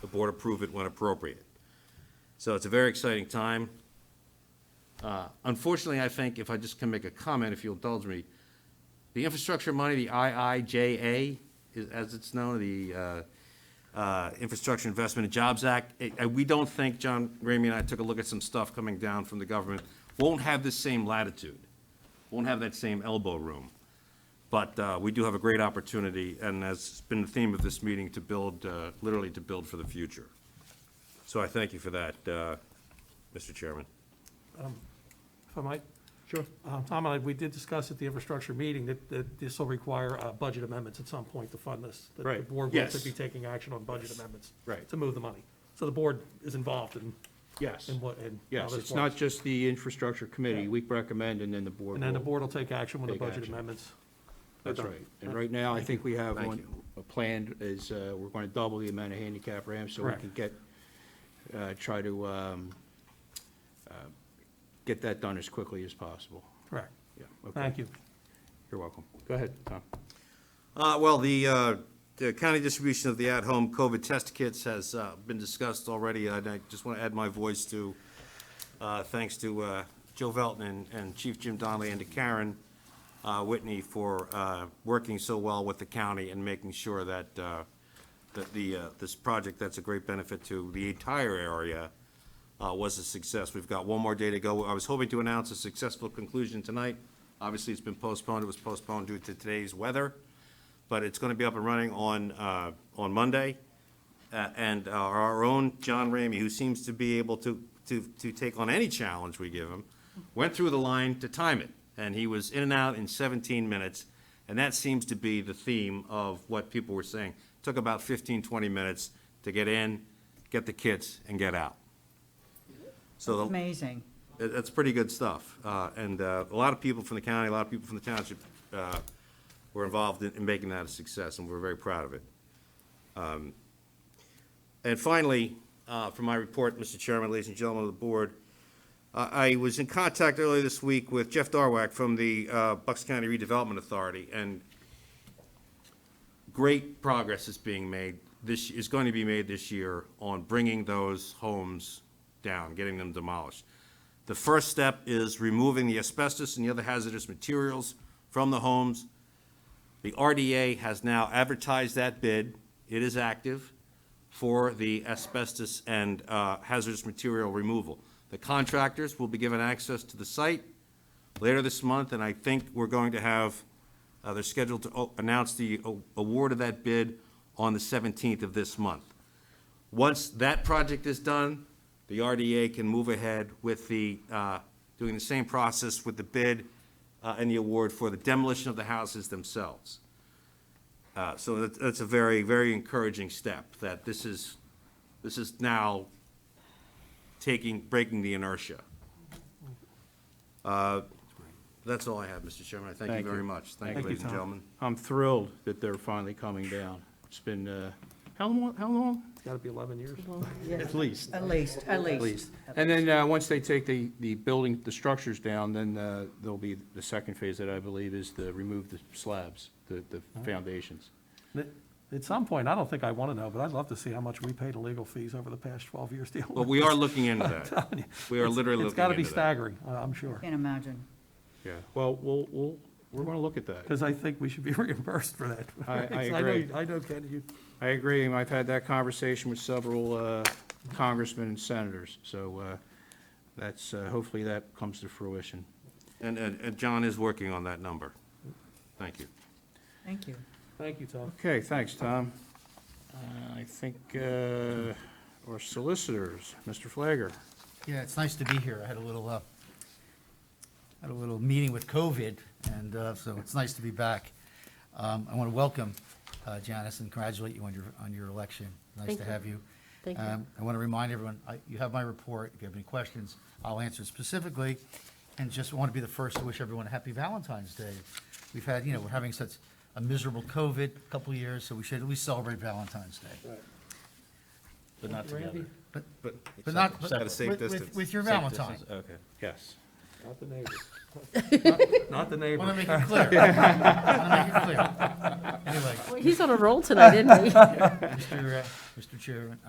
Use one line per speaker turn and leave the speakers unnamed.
the board approve it when appropriate. So it's a very exciting time. Uh, Unfortunately, I think, if I just can make a comment, if you'll indulge me, the infrastructure money, the IIJA, is- as it's known, the uh, uh, Infrastructure Investment and Jobs Act, it- uh, we don't think, John Ramey and I took a look at some stuff coming down from the government, won't have the same latitude, won't have that same elbow room. But uh, we do have a great opportunity, and that's been the theme of this meeting, to build, uh, literally to build for the future. So I thank you for that, uh, Mr. Chairman.
If I might? Sure. Tom, and I- we did discuss at the infrastructure meeting that, that this will require uh, budget amendments at some point to fund this. that
Right.
The board will have to
Yes.
be taking action on budget amendments.
Right.
To move the money. So the board is involved in,
Yes,
in what, in. how
yes,
this
it's not
works.
just the infrastructure committee,
Yeah.
we recommend, and then the board
And then the
will-
board will take action when the
Take
budget
action.
amendments. are
That's
done.
right, and right now, I think we have
Thank
one,
you.
a plan is, uh, we're gonna double the amount of handicap ramps, so we
Correct.
can get, uh, try to, um, uh, get that done as quickly as possible.
Correct.
Yeah, okay.
Thank you.
You're welcome. Go ahead, Tom.
Uh, Well, the uh, the county distribution of the at-home COVID test kits has uh, been discussed already, and I just want to add my voice to, uh, thanks to uh, Joe Velton and- and Chief Jim Donnelly and to Karen uh, Whitney for uh, working so well with the county and making sure that, uh, that the, uh, this project, that's a great benefit to the entire area, uh, was a success. We've got one more day to go. I was hoping to announce a successful conclusion tonight. Obviously, it's been postponed. It was postponed due to today's weather but it's going to be up and running on, uh, on Monday. Uh, And our our own John Ramey, who seems to be able to, to, to take on any challenge we give him, went through the line to time it, and he was in and out in 17 minutes. And that seems to be the theme of what people were saying. Took about 15, 20 minutes to get in, get the kits, and get out. So the-
Amazing.
that- that's pretty good stuff. Uh, And uh, a lot of people from the county, a lot of people from the township uh, were involved in in making that a success, and we're very proud of it. Um, And finally, uh, for my report, Mr. Chairman, ladies and gentlemen of the board, uh, I I was in contact earlier this week with Jeff Darwak from the uh, Bucks County Redevelopment Authority, and great progress is being made, this, is going to be made this year on bringing those homes down, getting them demolished. The first step is removing the asbestos and the other hazardous materials from the homes. The RDA has now advertised that bid, it is active, for the asbestos and uh, hazardous material removal. The contractors will be given access to the site later this month, and I think we're going to have, uh, they're scheduled to o- announce the o- award of that bid on the 17th of this month. Once that project is done, the RDA can move ahead with the, uh, doing the same process with the bid uh, and the award for the demolition of the houses themselves. Uh, So that- that's a very, very encouraging step, that this is, this is now taking, breaking the inertia. Uh, That's all I have, Mr. Chairman. I thank you
Thank you.
very much. Thank you,
Thank you,
ladies and
Tom.
gentlemen.
I'm thrilled that they're finally coming down. It's been, uh, how long, how long?
It's got to be 11 years.
At least.
At least, at least.
And then, uh, once they take the, the building, the structures down, then, uh, there'll be the second phase that I believe is to remove the slabs, the, the foundations.
At some point, I don't think I want to know, but I'd love to see how much we paid in legal fees over the past 12 years. dealing
Well,
with
we
this.
are looking into that.
telling you.
We are
It's-
literally
It's got to
looking
be
into that.
staggering, I- I'm sure,
Can't imagine.
Yeah, well, we'll, we'll, we're gonna look at that.
because I think we should be reimbursed for that.
I- I
know-
agree.
I know, Ken, you,
I agree, and I've had that conversation with several, uh, congressmen and senators, so, uh, that's, uh, hopefully that comes to fruition.
And, and and John is working on that number. Thank you.
Thank you.
thank you, Tom.
Okay, thanks, Tom. Uh, I think, uh, our solicitors, Mr. Flagger.
Yeah, it's nice to be here. I had a little, uh, had a little meeting with COVID, and, uh, so it's nice to be back. Um, I want to welcome, uh, Janice and congratulate you on your, on your election. Nice
Thank
to
you.
have you.
Thank you.
Um, I want to remind everyone, I, you have my report. If you have any questions, I'll answer specifically. And just want to be the first to wish everyone a happy Valentine's Day. We've had, you know, we're having such a miserable COVID couple years, so we should at least celebrate Valentine's Day. But not together. But,
But
but not, but
At a safe
with-
distance.
with, with your Valentine.
Okay.
Yes.
Not the neighbor. Not the neighbor.
Want to make it clear. Want to make it clear. Anyway,
Well, He's on a roll tonight, isn't he?
Mr. uh, Mr. Chairman,